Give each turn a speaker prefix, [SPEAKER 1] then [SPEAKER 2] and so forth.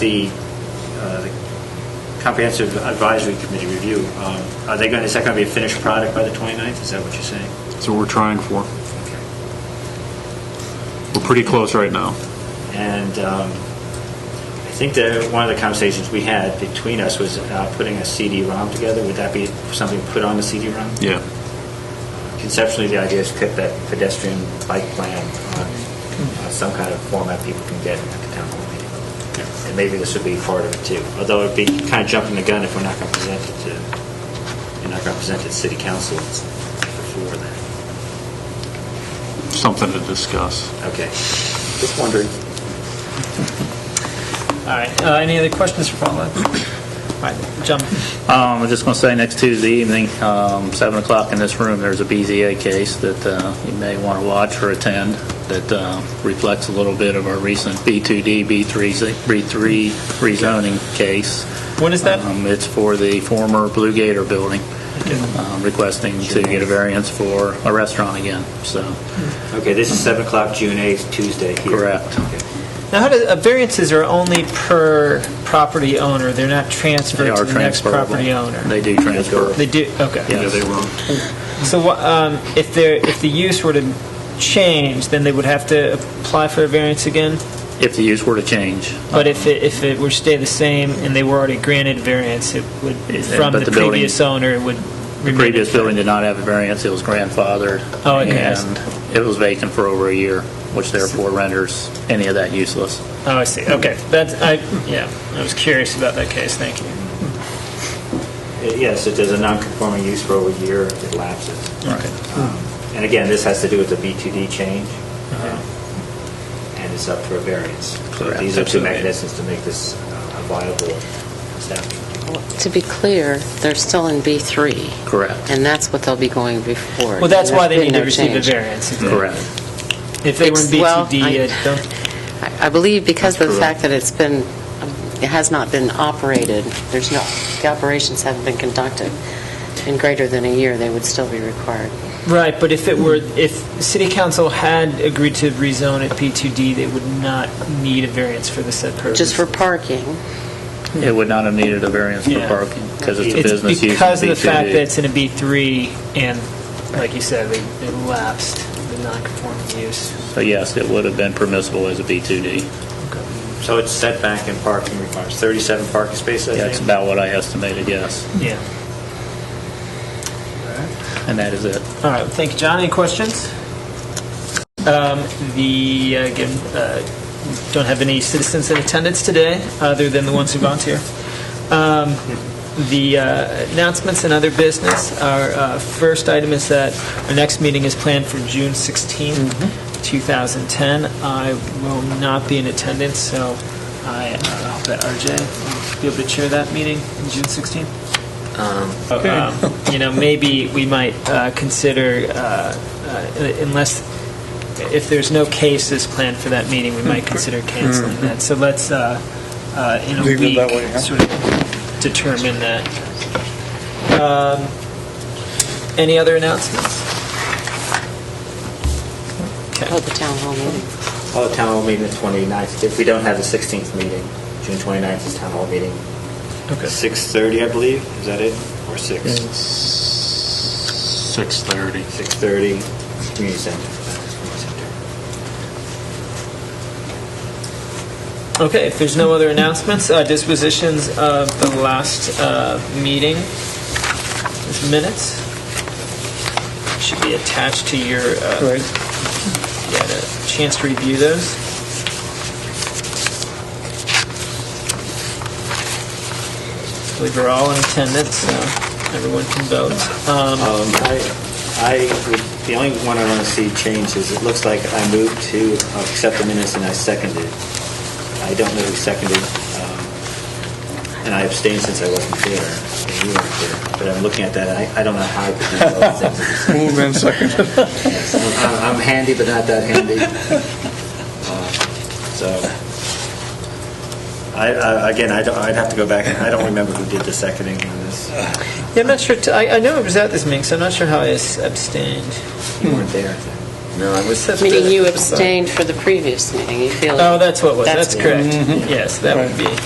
[SPEAKER 1] The uh, the Comprehensive Advisory Committee review, um, are they going, is that going to be a finished product by the 29th? Is that what you're saying?
[SPEAKER 2] That's what we're trying for. We're pretty close right now.
[SPEAKER 1] And um, I think that one of the conversations we had between us was uh, putting a CD-ROM together. Would that be something put on the CD-ROM?
[SPEAKER 2] Yeah.
[SPEAKER 1] Conceptually, the idea is to put that pedestrian bike plan on uh, some kind of format people can get at the town hall meeting. And maybe this would be part of it too, although it'd be kind of jumping the gun if we're not going to present it to, you're not going to present it to city council before that.
[SPEAKER 2] Something to discuss.
[SPEAKER 1] Okay, just wondering.
[SPEAKER 3] All right, uh, any other questions for Paul? All right, John?
[SPEAKER 4] Um, I'm just going to say, next Tuesday evening, um, 7 o'clock in this room, there's a BZA case that uh, you may want to watch or attend that uh, reflects a little bit of our recent B2D, B3 z- B3 rezoning case.
[SPEAKER 3] When is that?
[SPEAKER 4] Um, It's for the former Blue Gator building, um, requesting to get a variance for a restaurant again, so,
[SPEAKER 1] Okay, this is 7 o'clock, June 8th, Tuesday here.
[SPEAKER 4] Correct.
[SPEAKER 1] Okay.
[SPEAKER 3] Now, how do, uh, variances are only per property owner, they're not transferred
[SPEAKER 4] they
[SPEAKER 3] to
[SPEAKER 4] are
[SPEAKER 3] the next
[SPEAKER 4] transferable.
[SPEAKER 3] property owner?
[SPEAKER 4] They do transfer.
[SPEAKER 3] They do, okay.
[SPEAKER 4] Yeah, they will.
[SPEAKER 3] So wha- um, if there, if the use were to change, then they would have to apply for a variance again?
[SPEAKER 4] If the use were to change.
[SPEAKER 3] But if it, if it were to stay the same and they were already granted variance, it would,
[SPEAKER 4] Yeah,
[SPEAKER 3] from
[SPEAKER 4] but
[SPEAKER 3] the
[SPEAKER 4] the building-
[SPEAKER 3] previous owner, it would
[SPEAKER 4] The
[SPEAKER 3] remain.
[SPEAKER 4] previous building did not have a variance, it was grandfathered.
[SPEAKER 3] Oh, okay.
[SPEAKER 4] And it was vacant for over a year, which therefore renders any of that useless.
[SPEAKER 3] Oh, I see, okay. That's, I, yeah, I was curious about that case, thank you.
[SPEAKER 1] Uh, Yes, if there's a non-conforming use for over a year, it lapses.
[SPEAKER 4] Right.
[SPEAKER 1] Um, And again, this has to do with the B2D change, and it's up for a variance. So
[SPEAKER 4] Correct,
[SPEAKER 1] These are two
[SPEAKER 4] absolutely.
[SPEAKER 1] mechanisms to make this uh, a viable establishment.
[SPEAKER 5] To be clear, they're still in B3,
[SPEAKER 4] Correct.
[SPEAKER 5] and that's what they'll be going before.
[SPEAKER 3] Well, that's why they
[SPEAKER 5] There's
[SPEAKER 3] need to
[SPEAKER 5] been no
[SPEAKER 3] receive a variance.
[SPEAKER 5] change.
[SPEAKER 4] Correct.
[SPEAKER 3] If they were in
[SPEAKER 5] It's- well,
[SPEAKER 3] B2D,
[SPEAKER 5] I-
[SPEAKER 3] I don't,
[SPEAKER 5] I I believe because of the
[SPEAKER 4] That's
[SPEAKER 5] fact that it's been, um, it has not been operated, there's no, the operations haven't been conducted in greater than a year, they would still be required.
[SPEAKER 3] right, but if it were, if city council had agreed to rezone at B2D, they would not need a variance for the said purpose.
[SPEAKER 5] Just for parking,
[SPEAKER 4] It would not have needed a variance for
[SPEAKER 3] Yeah.
[SPEAKER 4] parking, because it's a
[SPEAKER 3] It's
[SPEAKER 4] business use. in
[SPEAKER 3] because of the
[SPEAKER 4] B2D.
[SPEAKER 3] fact that it's in a B3 and, like you said, they they lapsed the non-conforming use.
[SPEAKER 4] So yes, it would have been permissible as a B2D.
[SPEAKER 1] So it's setback and parking requirements, 37 parking spaces, I
[SPEAKER 4] That's
[SPEAKER 1] think?
[SPEAKER 4] about what I estimated, yes.
[SPEAKER 3] Yeah.
[SPEAKER 4] And that is it.
[SPEAKER 3] All right, thank you, John. Any questions? Um, The, uh, again, uh, don't have any citizens in attendance today, other than the ones who volunteer. Um, The uh, announcements and other business, our uh, first item is that our next meeting is planned for June 16th, 2010. I will not be in attendance, so I uh, hope that RJ will be able to chair that meeting on June 16th. But, um, you know, maybe we might uh, consider, uh, uh, unless, if there's no cases planned for that meeting, we might consider canceling that. So let's, uh, uh, in a
[SPEAKER 6] Hmm. Leave it
[SPEAKER 3] week,
[SPEAKER 6] that way, huh?
[SPEAKER 3] sort of determine that. Um, Any other announcements?
[SPEAKER 5] hold the town hall meeting.
[SPEAKER 1] Oh, the town hall meeting the 29th. If we don't have the 16th meeting, June 29th is town hall meeting.
[SPEAKER 3] Okay.
[SPEAKER 1] 6:30, I believe, is that it? Or 6?
[SPEAKER 2] 6:30.
[SPEAKER 1] 6:30, community center. Community center.
[SPEAKER 3] Okay, if there's no other announcements, uh, dispositions of the last uh, meeting, There's minutes, should be attached to your, uh, you had a chance to review those. I believe we're all in attendance, so everyone can vote. Um,
[SPEAKER 1] Um, I, I would- the only one I want to see changed is, it looks like I moved to uh, accept the minutes and I seconded. I don't know who seconded, um, and I abstained since I wasn't there, and you weren't there, but I'm looking at that, and I, I don't know how I could do both things. at the
[SPEAKER 6] Moved and seconded.
[SPEAKER 1] same time. I'm I'm handy, but not that handy. Uh, So, I, I- again, I don't, I'd have to go back, and I don't remember who did the seconding on this.
[SPEAKER 3] Yeah, I'm not sure, t- I I know it was at this meeting, so I'm not sure how I s- abstained.
[SPEAKER 1] You weren't there.
[SPEAKER 3] No, I was abstaining.
[SPEAKER 5] Meaning you abstained for the previous meeting, you feel.
[SPEAKER 3] Oh, that's what it was, that's
[SPEAKER 5] That's
[SPEAKER 3] correct. Yes, that would be.